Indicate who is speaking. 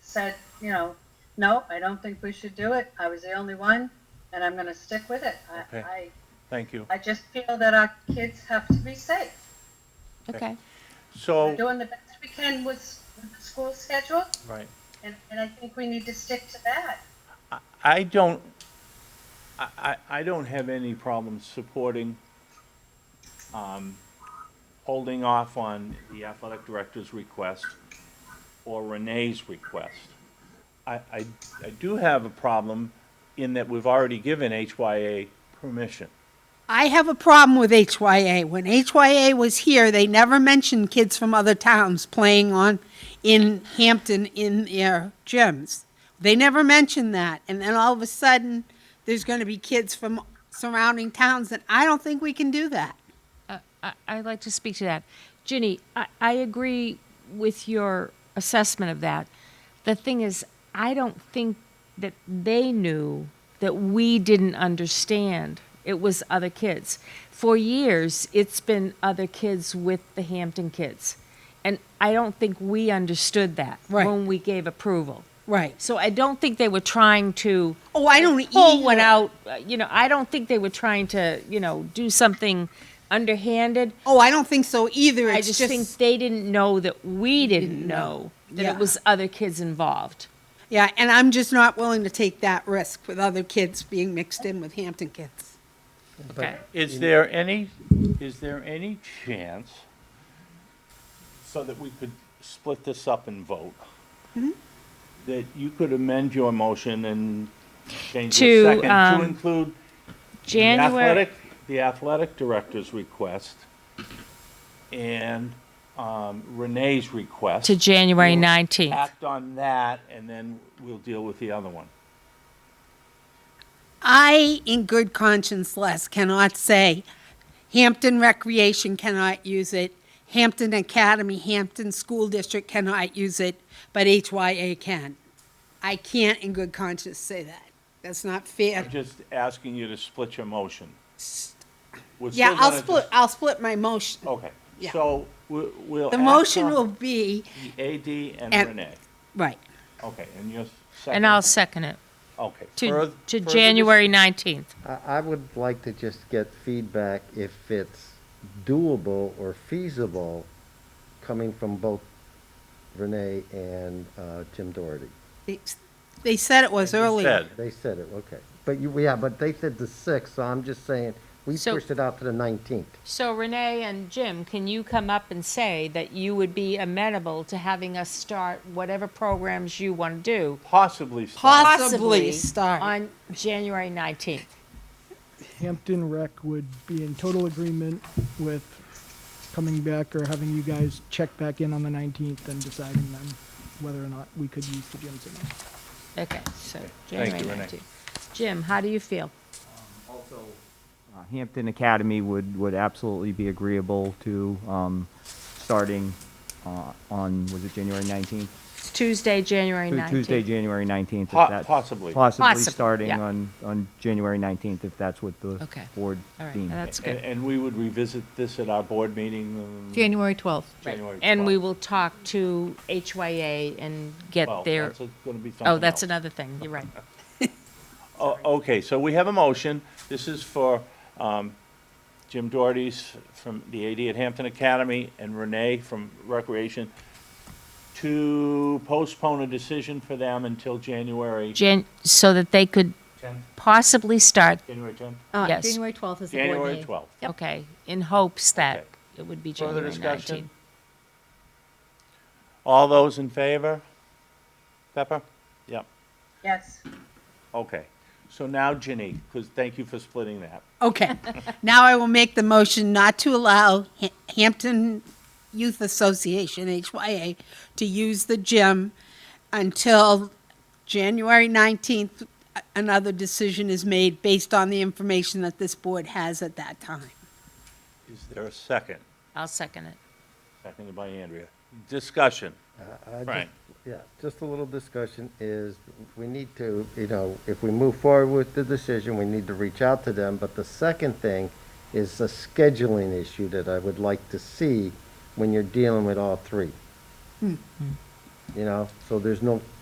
Speaker 1: said, you know, no, I don't think we should do it. I was the only one, and I'm going to stick with it. I,
Speaker 2: Okay. Thank you.
Speaker 1: I, I just feel that our kids have to be safe.
Speaker 2: Okay.
Speaker 3: Okay.
Speaker 1: We're
Speaker 2: So,
Speaker 1: doing the best we can with, with the school schedule,
Speaker 2: right.
Speaker 1: and, and I think we need to stick to that.
Speaker 2: I- I don't, I, I, I don't have any problems supporting, um, holding off on the athletic director's request or Renee's request. I, I, I do have a problem in that we've already given HYA permission.
Speaker 3: I have a problem with HYA. When HYA was here, they never mentioned kids from other towns playing on in Hampton in their gyms. They never mentioned that. And then all of a sudden, there's going to be kids from surrounding towns that I don't think we can do that.
Speaker 4: Uh, I, I'd like to speak to that. Ginny, I, I agree with your assessment of that. The thing is, I don't think that they knew that we didn't understand it was other kids. For years, it's been other kids with the Hampton kids. And I don't think we understood that
Speaker 3: Right.
Speaker 4: when we gave approval.
Speaker 3: Right.
Speaker 4: So I don't think they were trying to
Speaker 3: Oh, I don't
Speaker 4: pull one
Speaker 3: either.
Speaker 4: out. uh, You know, I don't think they were trying to, you know, do something underhanded.
Speaker 3: Oh, I don't think so either.
Speaker 4: I
Speaker 3: It's
Speaker 4: just, think they didn't know that we didn't know that
Speaker 3: Yeah.
Speaker 4: it was other kids involved.
Speaker 3: yeah, and I'm just not willing to take that risk with other kids being mixed in with Hampton kids.
Speaker 4: Okay.
Speaker 2: Is there any, is there any chance so that we could split this up and vote?
Speaker 4: Mm-hmm.
Speaker 2: That you could amend your motion and change
Speaker 4: To,
Speaker 2: the second to
Speaker 4: um,
Speaker 2: include the
Speaker 4: January.
Speaker 2: athletic, the athletic director's request and um, Renee's request.
Speaker 4: To January
Speaker 2: We'll
Speaker 4: 19th.
Speaker 2: Act on that and then we'll deal with the other one.
Speaker 3: I, in good conscience, Les, cannot say Hampton Recreation cannot use it, Hampton Academy, Hampton School District cannot use it, but HYA can. I can't, in good conscience, say that. That's not fair.
Speaker 2: I'm just asking you to split your motion. We're
Speaker 3: Yeah,
Speaker 2: still
Speaker 3: I'll
Speaker 2: gonna
Speaker 3: split,
Speaker 2: dis-
Speaker 3: I'll split my motion.
Speaker 2: Okay,
Speaker 3: Yeah.
Speaker 2: so we- we'll.
Speaker 3: The
Speaker 2: act
Speaker 3: motion
Speaker 2: on
Speaker 3: will be,
Speaker 2: the AD and
Speaker 3: and-
Speaker 2: Renee.
Speaker 3: right,
Speaker 2: Okay, and your second.
Speaker 4: And I'll second it
Speaker 2: Okay.
Speaker 4: to,
Speaker 2: further-
Speaker 4: to
Speaker 2: further dis-
Speaker 4: January 19th.
Speaker 5: I, I would like to just get feedback if it's doable or feasible coming from both Renee and uh, Jim Doherty.
Speaker 3: They- they said it was earlier.
Speaker 2: Said.
Speaker 5: They said it, okay. But you, yeah, but they said the sixth, so I'm just saying, we
Speaker 4: So-
Speaker 5: pushed it out to the nineteenth.
Speaker 4: So Renee and Jim, can you come up and say that you would be amenable to having us start whatever programs you want to do?
Speaker 2: Possibly start.
Speaker 3: Possibly start.
Speaker 4: On January 19th.
Speaker 6: Hampton Rec would be in total agreement with coming back or having you guys check back in on the 19th and deciding then whether or not we could use the gyms or not.
Speaker 4: Okay, so
Speaker 2: Thank
Speaker 4: January
Speaker 2: you, Renee.
Speaker 4: 19th. Jim, how do you feel?
Speaker 7: Uh, Hampton Academy would, would absolutely be agreeable to um, starting uh, on, was it January 19th?
Speaker 4: It's Tuesday, January
Speaker 7: Tu-
Speaker 4: 19th.
Speaker 7: Tuesday, January 19th. if
Speaker 2: Po-
Speaker 7: that's-
Speaker 2: possibly.
Speaker 7: Possibly
Speaker 4: Possibly,
Speaker 7: starting
Speaker 4: yeah.
Speaker 7: on, on January 19th, if that's what the
Speaker 4: Okay.
Speaker 7: board
Speaker 4: All right,
Speaker 7: deems.
Speaker 4: that's
Speaker 2: And,
Speaker 4: good.
Speaker 2: and we would revisit this at our board meeting. um,
Speaker 8: January 12th.
Speaker 4: Right.
Speaker 2: January
Speaker 4: And we
Speaker 2: 12th.
Speaker 4: will talk to HYA and get
Speaker 2: Well,
Speaker 4: their,
Speaker 2: that's a- gonna be
Speaker 4: oh,
Speaker 2: something else.
Speaker 4: that's another thing, you're right.
Speaker 2: O- Okay, so we have a motion. This is for um, Jim Doherty's from the AD at Hampton Academy and Renee from Recreation to postpone a decision for them until January
Speaker 4: Jan, so that they could
Speaker 2: 10th,
Speaker 4: possibly start,
Speaker 2: January 10th?
Speaker 8: Uh,
Speaker 4: Yes.
Speaker 8: January 12th is the board meeting.
Speaker 2: January 12th.
Speaker 4: okay, in hopes that
Speaker 2: Okay.
Speaker 4: it would be
Speaker 2: Further
Speaker 4: January 19th.
Speaker 2: discussion? All those in favor? Pepper? Yep,
Speaker 1: Yes.
Speaker 2: okay. So now Ginny, because thank you for splitting that.
Speaker 3: Okay. Now I will make the motion not to allow Ha- Hampton Youth Association, HYA, to use the gym until January 19th. A- Another decision is made based on the information that this board has at that time.
Speaker 2: Is there a second?
Speaker 4: I'll second it.
Speaker 2: Seconded by Andrea. Discussion. Right.
Speaker 5: Yeah, just a little discussion is, we need to, you know, if we move forward with the decision, we need to reach out to them. But the second thing is a scheduling issue that I would like to see when you're dealing with all three. You know, so there's no